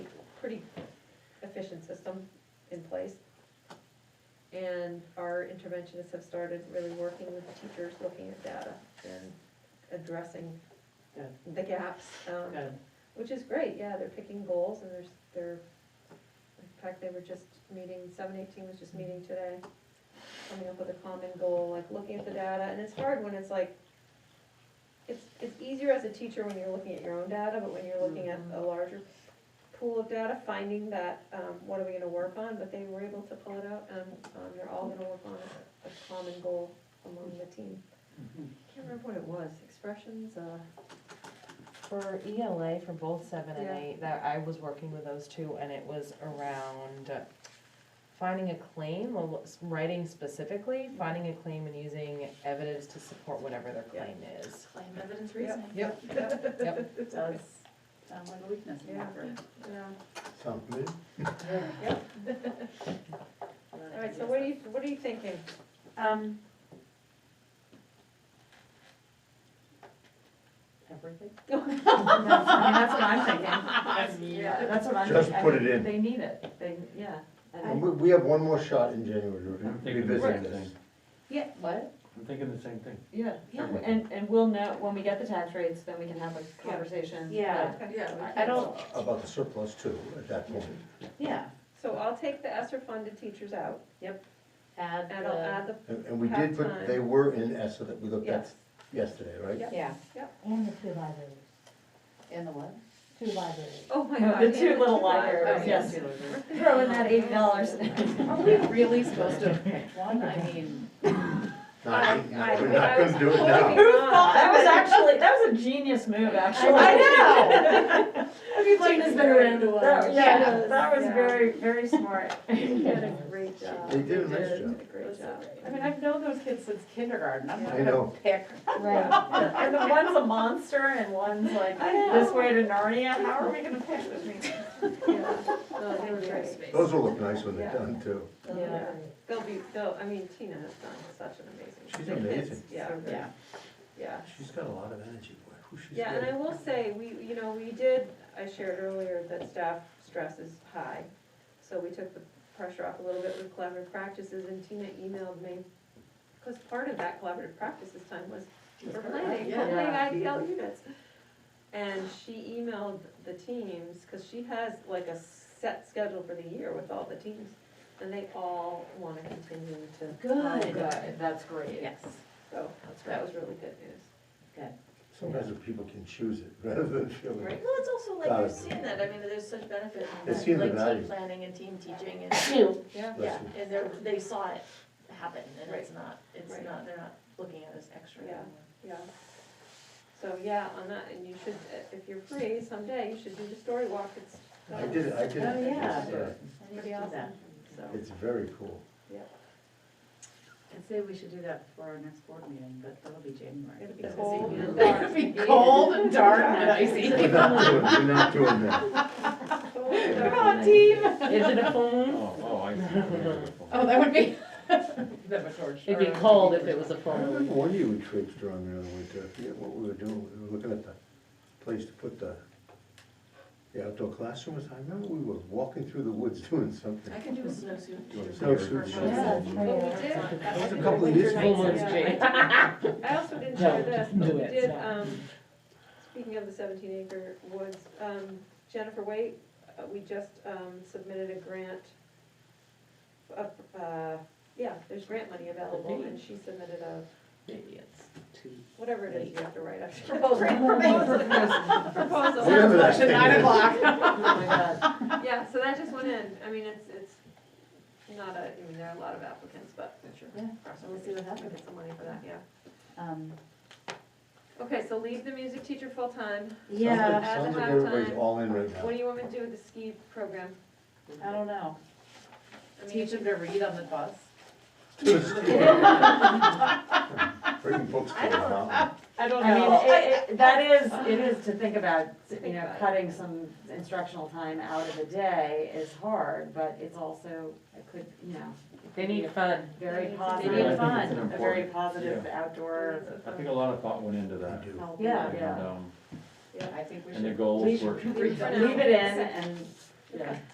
our interventionists have started really working with the teachers, looking at data and addressing Good. the gaps. um, Good. Which is great, yeah, they're picking goals and there's, they're, in fact, they were just meeting, seven eighteen was just meeting today, coming up with a common goal, like looking at the data, and it's hard when it's like, it's, it's easier as a teacher when you're looking at your own data, but when you're looking at a larger pool of data, finding that, um, what are we gonna work on, but they were able to pull it out, and, um, they're all gonna work on a a common goal among the team. Can't remember what it was, expressions, uh. For ELA, for both seven and Yeah. eight, that I was working with those two, and it was around finding a claim, well, s- writing specifically, finding a claim and using evidence to support whatever their Yeah. claim is. Claim evidence reasoning. Yep. Yep, It does sound like a weakness. Yeah. Yeah. Something. All right, so what are you, what are you thinking? Um. Everything? That's that's what I'm thinking. yeah, that's what I'm Just thinking. I put it mean, in. They need it, they, yeah. And we, we have one more shot in January to I'm thinking the revisit same this. thing. Yeah, what? I'm thinking the same thing. Yeah, yeah, and, and we'll know, when we get the tax rates, then we can have a conversation. Yeah. Yeah. I don't, Uh, About the surplus too, at that point. yeah, So I'll take the ESSER funded teachers out, add and I'll the, add the, And, and we did put, they were in ESSA that we looked at yes, yesterday, right? Yeah. yeah, And the two libraries, in the what? two libraries. oh my Oh, god. The two little libraries. libraries, yes. Throw in that eighty dollars. Are we really supposed to pick one? I mean, No, I- we- no, I- We're I not was gonna do it now. hoping- Who thought, that was actually, that was a genius move, actually. I Gina's been around a while. Yeah. Yeah, that was very, very smart. They did a great job. They did a nice did job. a great job. I mean, I've known those kids since kindergarten, I'm not I gonna know. pick. Right. And the one's a monster and one's like I know. this way to Narnia, how are we gonna pick between? Yeah. No, they were great. Those will look nice when they're done too. Yeah. They'll be, they'll, I mean, Tina has done such an amazing. She's the kids, amazing. Yeah, Yeah, yeah. She's got a lot of energy, boy. Who she's Yeah, and I getting. will say, we, you know, we did, I shared earlier that staff stress is high. So we took the pressure off a little bit with collaborative practices and Tina emailed me. Because part of that collaborative practices time was for planning, Yeah. planning IDL units. And she emailed the teams, because she has like a set schedule for the year with all the teams. And they all want to continue to. Oh, good, Good. that's great. Yes. So That's that right. was really good news. Sometimes the people can choose it rather than feeling. Right, well, it's also like Value. you're seeing that, I mean, there's such benefit in They've seen that, like the value. team planning and team teaching and, Yeah. yeah, Bless and they're, they saw it happen and it's Right. not, it's Right. not, they're not looking at it as extra. Yeah. Yeah. So, yeah, on that, and you should, uh, if you're free someday, you should do the story walk, it's. I did it, I did it. Oh, yeah. It's, uh, I need to Pretty do awesome, that. so. It's very cool. I'd say we should do that before our next board meeting, but that'll be January. It'll be That's cold busy. and dark. It'll be cold and dark and icy. We're not doing, we're not doing that. Come team. Is it a phone? Oh, oh, I see. Hmm? Oh, that would be. That would torture. It'd be cold if it was a I phone. remember one year we traipsed around there in the winter, I forget what we were doing, we were looking at the place to put the, the outdoor classrooms, I remember we were walking through the woods doing something. I can do a snowsuit. Do a Snowsuit show. Yeah, it's pretty Well, we awesome. did, That was a couple of years Full ago. moon's Jane. I also didn't share this, but do we it, did, so. um, speaking of the seventeen acre woods, um, Jennifer Waite, uh, we just, um, submitted a grant. Uh, uh, yeah, there's grant money available, and she submitted a, Maybe it's two. whatever it is you have to write, a Grant proposal. Whatever that thing is. Yeah, so that just went in, I mean, it's, it's not a, I mean, there are a lot of applicants, but. Yeah, We'll see what happens. Get some money for that, yeah. Um, Okay, so leave the music teacher full-time, Yeah, Sounds like- Sounds like At everybody's halftime. all in right what do now. you want me to do with the ski program? I don't know. I mean, Teach them to read on the bus. Bring books to the mountain. I don't I mean, it, it, that is, uh, it is to think about, you Think know, about it. cutting some instructional time out of the day is hard, but it's also, it could, you know, They need fun. very They need positive. fun. I think it's A an very important- positive outdoor. I think a lot of thought went into that. do. healthy- And, Yeah. um, I think we And the should. goals we were. should Leave For it now. in and, yeah.